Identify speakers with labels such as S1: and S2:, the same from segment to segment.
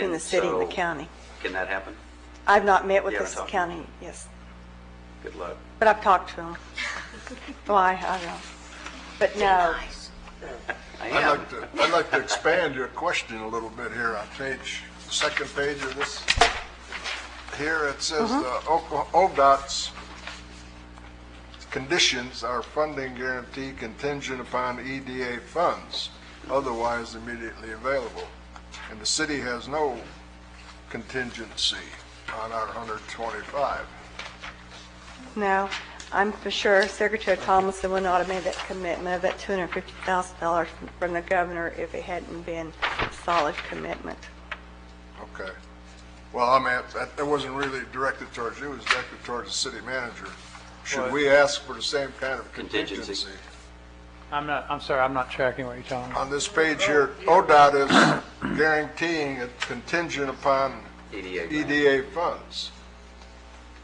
S1: in the city and the
S2: so-
S1: county.
S2: Can that happen?
S1: I've not met with
S2: You
S1: the
S2: haven't talked to
S1: county, yes,
S2: Good luck.
S1: but I've talked to them. Why, I don't, but no,
S2: I
S3: I'd
S2: am.
S3: like to, I'd like to expand your question a little bit here on page, second page of this. Here it says, uh, Oka- ODOT's conditions are funding guarantee contingent upon EDA funds, otherwise immediately available. And the city has no contingency on our 125.
S1: no, I'm for sure Secretary Thomason would not have made that commitment of that $250,000 from the governor if it hadn't been a solid commitment.
S3: Okay. Well, I mean, that, that wasn't really directed towards you, it was directed towards the city manager. Should we ask for the same kind of
S2: Contingency.
S3: contingency?
S4: I'm not, I'm sorry, I'm not tracking what you're talking about.
S3: On this page here, ODOT is guaranteeing a contingent upon
S2: EDA
S4: E
S2: grant.
S3: EDA funds.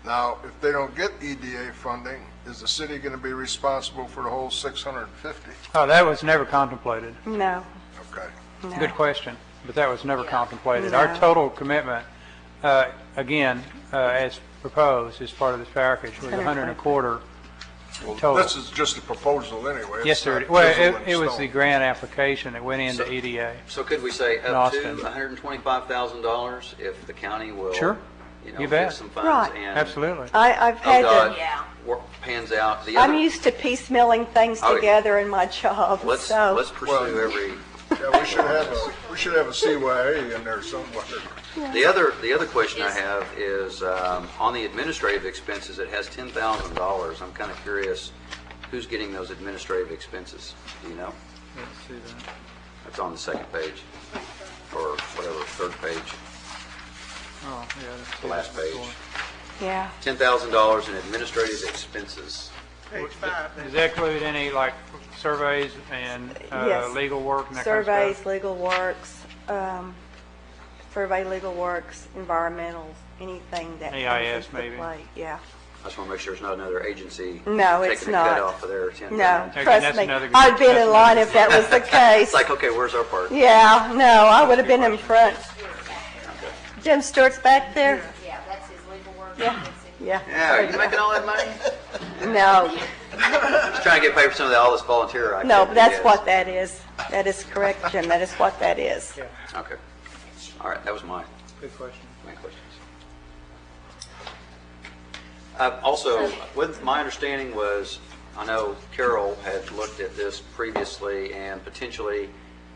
S3: Now, if they don't get EDA funding, is the city gonna be responsible for the whole six hundred and fifty?
S4: Oh, that was never contemplated.
S1: No,
S3: Okay.
S1: no.
S4: Good question, but that was never contemplated.
S1: No.
S4: Our total commitment, uh, again, uh, as proposed, as part of this package, was a hundred and a quarter
S3: Well,
S4: total.
S3: this is just a proposal anyway.
S4: Yes,
S3: It's
S4: sir.
S3: not
S4: Well,
S3: chiseled
S4: it-
S3: in
S4: it was
S3: stone.
S4: the grant application that went into E
S2: So-
S4: EDA.
S2: So could we say
S4: In
S2: up to
S4: Austin.
S2: $125,000 if the county will?
S4: Sure.
S2: You
S4: You
S2: know,
S4: bet.
S2: give some funds
S1: Right.
S2: and.
S4: Absolutely.
S1: I, I've had
S2: ODOT
S1: to,
S5: Yeah.
S2: work- pans out. The
S1: I'm
S2: other,
S1: used to piecemealing things
S2: Oh, yeah.
S1: together in my job,
S2: let's,
S1: so,
S2: let's pursue every,
S3: Yeah, we should have a, we should have a CYA in there somewhere.
S2: the other, the other question I have is, um, on the administrative expenses, it has $10,000. I'm kind of curious, who's getting those administrative expenses? Do you know? That's on the second page, or whatever, third page,
S4: Oh,
S2: the last page.
S1: yeah.
S2: $10,000 in administrative expenses.
S4: Does that include any, like, surveys and uh,
S1: Yes.
S4: legal work and that kind of stuff?
S1: Surveys, legal works, um, survey, legal works, environmental, anything that. comes
S4: AIS
S1: into
S4: maybe.
S1: play, Yeah.
S2: I just want to make sure there's not another agency.
S1: No, it's
S2: Taking a
S1: not.
S2: cut off of their 10
S1: No,
S4: Okay,
S1: trust
S4: that's
S1: me.
S4: another-
S1: I'd been in
S4: that's
S1: line
S4: another-
S1: if that was the
S2: It's
S1: case.
S2: like, okay, where's our part?
S1: Yeah, no, I would have been in front. Jim Stewart's back there?
S5: Yeah, that's his legal work.
S1: Yeah.
S2: Yeah, are you making all that money?
S1: No,
S2: Just trying to get paid for some of the, all this volunteer activity.
S1: no, but that's
S2: yes.
S1: what that is. That is correct, Jim. That is what that is.
S2: Okay. All right, that was my,
S4: Good question.
S2: my questions. Uh, Also, with, my understanding was, I know Carol had looked at this previously, and potentially,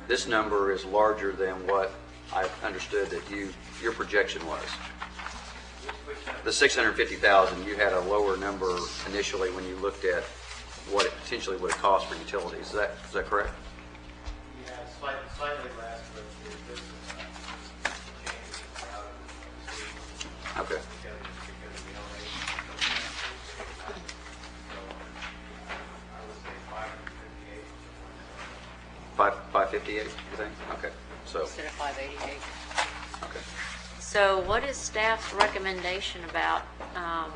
S2: this number is larger than what I understood that you, your projection was. The 650,000, you had a lower number initially when you looked at what it potentially would have cost for utilities. Is that, is that correct?
S6: Yeah, slightly, slightly less, but the business changes out of the state
S2: Okay.
S6: because we don't make. So, I would say five hundred fifty-eight.
S2: 5, 558, you think? Okay, so,
S5: Instead of five eighty-eight.
S2: okay.
S7: So what is staff's recommendation about um,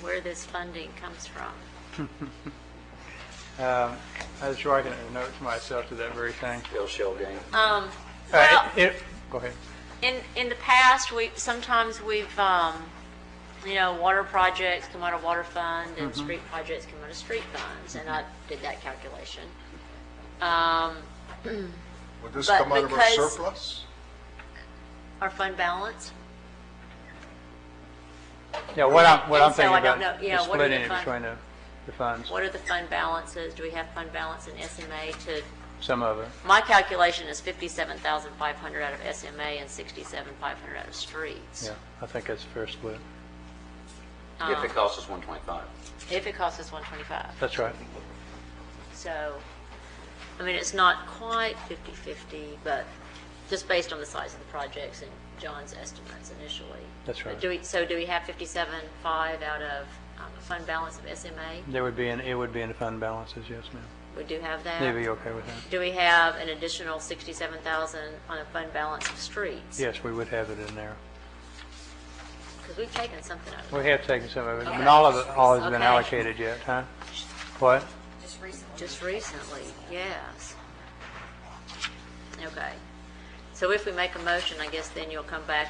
S7: where this funding comes from?
S4: Um, I was writing a note to myself to that very thing.
S2: Bill Shell game.
S7: Um,
S4: Uh,
S7: Well,
S4: it- it- Go ahead.
S7: in, in the past, we, sometimes we've, um, you know, water projects come out of water fund and street projects come out of street funds, and I did that calculation. Um,
S3: Would this
S7: But
S3: come out of our
S7: because-
S3: surplus?
S7: Our fund balance?
S4: Yeah, what I'm, what I'm
S7: And so
S4: thinking
S7: I don't
S4: about
S7: know, yeah,
S4: is
S7: what are the
S4: splitting it
S7: fun-
S4: between the, the funds,
S7: What are the fund balances? Do we have fund balance in SMA to,
S4: some of it.
S7: my calculation is 57,500 out of SMA and 67,500 out of streets. Um,
S4: Yeah, I think that's a fair split.
S2: If it costs us 125.
S7: If it costs us 125.
S4: That's right.
S7: So, I mean, it's not quite 50/50, but just based on the size of the projects and John's estimates initially.
S4: That's
S7: But
S4: right.
S7: Do we, so do we have 57.5 out of um, fund balance of SMA?
S4: There would be, an it would be in the fund balances, yes, ma'am.
S7: We do have that?
S4: They'd be okay with that.
S7: Do we have an additional 67,000 on a fund balance of streets?
S4: Yes, we would have it in there.
S7: Because we've taken something out of
S4: We
S7: that
S4: have taken some of it, but all of it, all has been
S7: Okay.
S4: allocated yet, huh? What?
S5: Just recently.
S7: just recently, yes. Okay. So if we make a motion, I guess then you'll come back